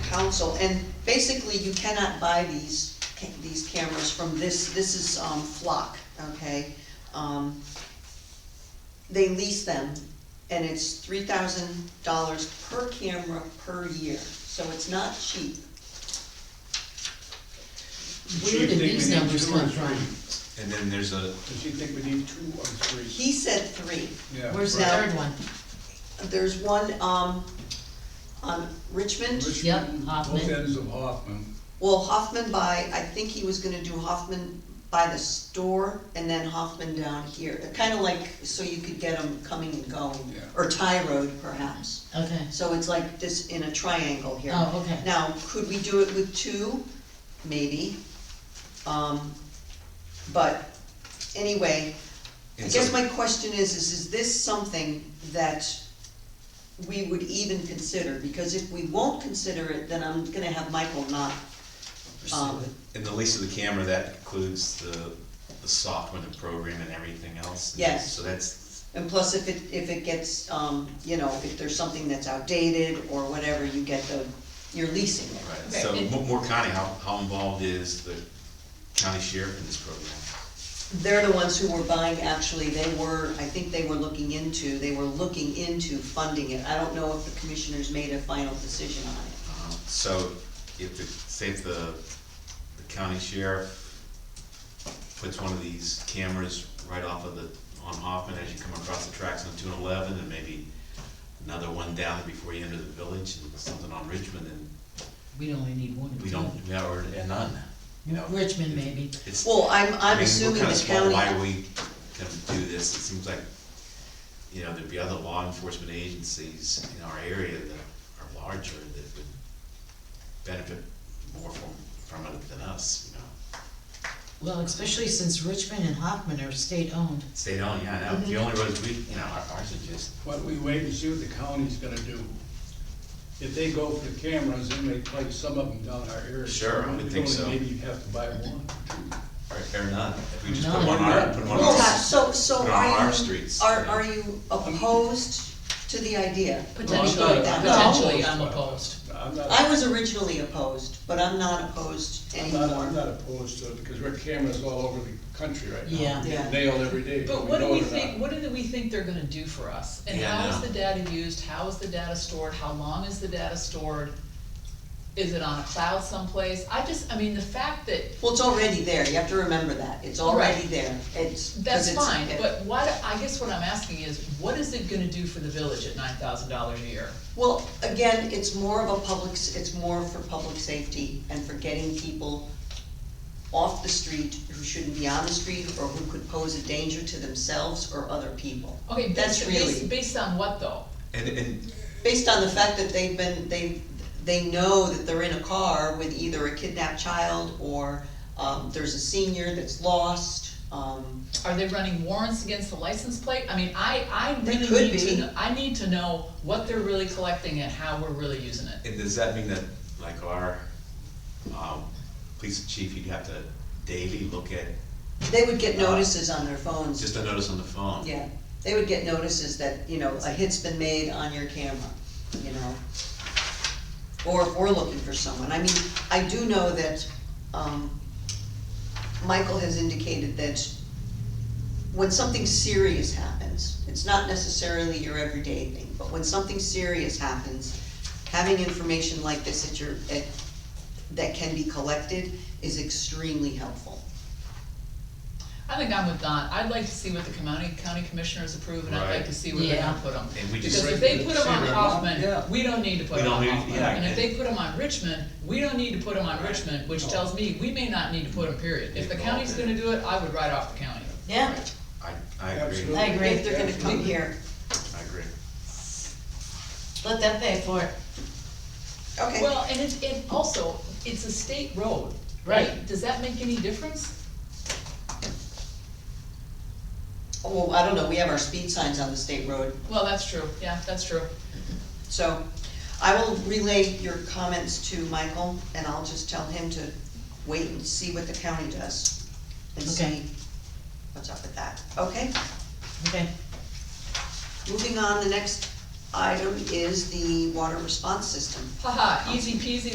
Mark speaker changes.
Speaker 1: council, and basically you cannot buy these, ca- these cameras from this, this is, um, Flock, okay? Um, They lease them, and it's three thousand dollars per camera per year, so it's not cheap.
Speaker 2: Where did these numbers come from?
Speaker 3: And then there's a,
Speaker 4: Does she think we need two or three?
Speaker 1: He said three.
Speaker 4: Yeah.
Speaker 2: Where's the
Speaker 1: Right.
Speaker 2: third one?
Speaker 1: There's one, um, on Richmond,
Speaker 4: Richmond,
Speaker 2: Yep, Hoffman.
Speaker 4: Both ends of Hoffman.
Speaker 1: well, Hoffman by, I think he was gonna do Hoffman by the store and then Hoffman down here. Kinda like, so you could get them coming and going,
Speaker 4: Yeah.
Speaker 1: or tie road perhaps.
Speaker 2: Okay,
Speaker 1: So it's like this in a triangle here.
Speaker 2: oh, okay.
Speaker 1: Now, could we do it with two? Maybe. Um, but anyway, I
Speaker 3: And
Speaker 1: guess
Speaker 3: so-
Speaker 1: my question is, is, is this something that we would even consider? Because if we won't consider it, then I'm gonna have Michael not, um,
Speaker 3: in the lease of the camera, that includes the, the software, the program and everything else.
Speaker 1: Yes.
Speaker 3: So that's,
Speaker 1: and plus if it, if it gets, um, you know, if there's something that's outdated or whatever, you get the, you're leasing it.
Speaker 3: right, so
Speaker 2: Right, and-
Speaker 3: Mo- Moore County, how, how involved is the county sheriff in this program?
Speaker 1: They're the ones who were buying, actually, they were, I think they were looking into, they were looking into funding it. I don't know if the commissioners made a final decision on it.
Speaker 3: Uh, So if, the- say if the, the county sheriff puts one of these cameras right off of the, on Hoffman as you come across the tracks on two and eleven, and maybe another one down before you enter the village, and something on Richmond, and
Speaker 2: We only need one. or
Speaker 3: we
Speaker 2: two.
Speaker 3: don't, we are, and none, you know?
Speaker 2: Richmond maybe.
Speaker 3: It's,
Speaker 1: Well, I'm,
Speaker 3: I
Speaker 1: I'm
Speaker 3: mean, we're
Speaker 1: assuming
Speaker 3: kinda
Speaker 1: the
Speaker 3: small,
Speaker 1: county.
Speaker 3: why we can do this, it seems like, you know, there'd be other law enforcement agencies in our area that are larger that would benefit more from, from it than us, you know?
Speaker 2: Well, especially since Richmond and Hoffman are state-owned.
Speaker 3: State owned, yeah,
Speaker 1: Mm-hmm.
Speaker 3: now, the only roads we, you know, our- ours are just,
Speaker 4: Why don't we wait and see what the county's gonna do? If they go for the cameras, then they place some of them down our area.
Speaker 3: Sure, I
Speaker 4: We
Speaker 3: would think
Speaker 4: only
Speaker 3: so.
Speaker 4: Maybe you have to buy one, two.
Speaker 3: or, or none, if we just put
Speaker 2: None.
Speaker 3: one on our, put one on
Speaker 1: Well,
Speaker 3: our.
Speaker 1: so, so
Speaker 3: put it on
Speaker 1: are
Speaker 3: our
Speaker 1: you,
Speaker 3: streets,
Speaker 1: are,
Speaker 3: you know.
Speaker 1: are you opposed to the idea?
Speaker 4: Well,
Speaker 5: Potentially,
Speaker 4: I'm not-
Speaker 5: potentially, I'm opposed.
Speaker 4: I'm not,
Speaker 1: I was originally opposed, but I'm not opposed
Speaker 4: I'm not, I'm
Speaker 1: anymore.
Speaker 4: not opposed to it, because we're cameras all over the country right now.
Speaker 2: Yeah.
Speaker 1: Yeah.
Speaker 4: Nailed every day.
Speaker 5: But what do
Speaker 4: know it or
Speaker 5: we
Speaker 4: not.
Speaker 5: think, what do we think they're gonna do for us? And
Speaker 3: Yeah, I
Speaker 5: how is
Speaker 3: know.
Speaker 5: the data used, how is the data stored, how long is the data stored? Is it on a cloud someplace? I just, I mean, the fact that,
Speaker 1: Well, it's already there, you have to remember that, it's already there, it's. 'cause
Speaker 5: that's
Speaker 1: it's-
Speaker 5: fine, but what, I guess what I'm asking is, what is it gonna do for the village at nine thousand dollars a year?
Speaker 1: Well, again, it's more of a public, s- it's more for public safety and for getting people off the street who shouldn't be on the street or who could pose a danger to themselves or other people.
Speaker 5: Okay,
Speaker 1: That's
Speaker 5: based,
Speaker 1: really-
Speaker 5: based, based on what though?
Speaker 3: And, and,
Speaker 1: Based on the fact that they've been, they, they know that they're in a car with either a kidnapped child or, um, there's a senior that's lost, um,
Speaker 5: Are they running warrants against the license plate? I mean, I, I
Speaker 1: They
Speaker 5: really
Speaker 1: could
Speaker 5: need
Speaker 1: be.
Speaker 5: to, kn- I need to know what they're really collecting and how we're really using it.
Speaker 3: and does that mean that, like, our, um, police chief, you'd have to daily look at,
Speaker 1: they would get notices on their phones.
Speaker 3: just a notice on the phone?
Speaker 1: Yeah, they would get notices that, you know, a hit's been made on your camera, you know? Or if we're looking for someone, I mean, I do know that, um, Michael has indicated that when something serious happens, it's not necessarily your everyday thing, but when something serious happens, having information like this at your, at, that can be collected is extremely helpful.
Speaker 5: I think I'm with Don, I'd like to see what the county, county commissioners approve, and I'd like
Speaker 3: Right.
Speaker 5: to see where they're gonna
Speaker 2: Yeah.
Speaker 5: put them.
Speaker 3: And we just-
Speaker 5: Because if they put them on
Speaker 4: Yeah. Yeah.
Speaker 5: Hoffman, we don't need to
Speaker 3: We
Speaker 5: put them
Speaker 3: don't
Speaker 5: on
Speaker 3: need-
Speaker 5: Hoffman,
Speaker 3: yeah,
Speaker 5: and if
Speaker 3: and-
Speaker 5: they put them on Richmond, we don't need to put them on
Speaker 3: Right.
Speaker 5: Richmond, which
Speaker 4: No.
Speaker 5: tells me we may not need to put them, period. If the
Speaker 3: Involved
Speaker 5: county's
Speaker 3: in
Speaker 5: gonna do it, I would write off the county.
Speaker 2: Yeah.
Speaker 3: I, I agree,
Speaker 4: Absolutely.
Speaker 2: I agree.
Speaker 1: If they're gonna come here.
Speaker 3: I agree.
Speaker 2: Let them pay for it.
Speaker 1: Okay.
Speaker 5: Well, and it's, it also, it's a state road, right?
Speaker 2: Right.
Speaker 5: Does that make any difference?
Speaker 1: Well, Oh, I don't know, we have our speed signs on the state road,
Speaker 5: Well, that's true, yeah, that's true.
Speaker 1: so I will relay your comments to Michael, and I'll just tell him to wait and see what the county does. And
Speaker 2: Okay.
Speaker 1: see what's up with that, okay?
Speaker 2: Okay.
Speaker 1: Moving on, the next item is the water response system.
Speaker 5: Haha, easy peasy,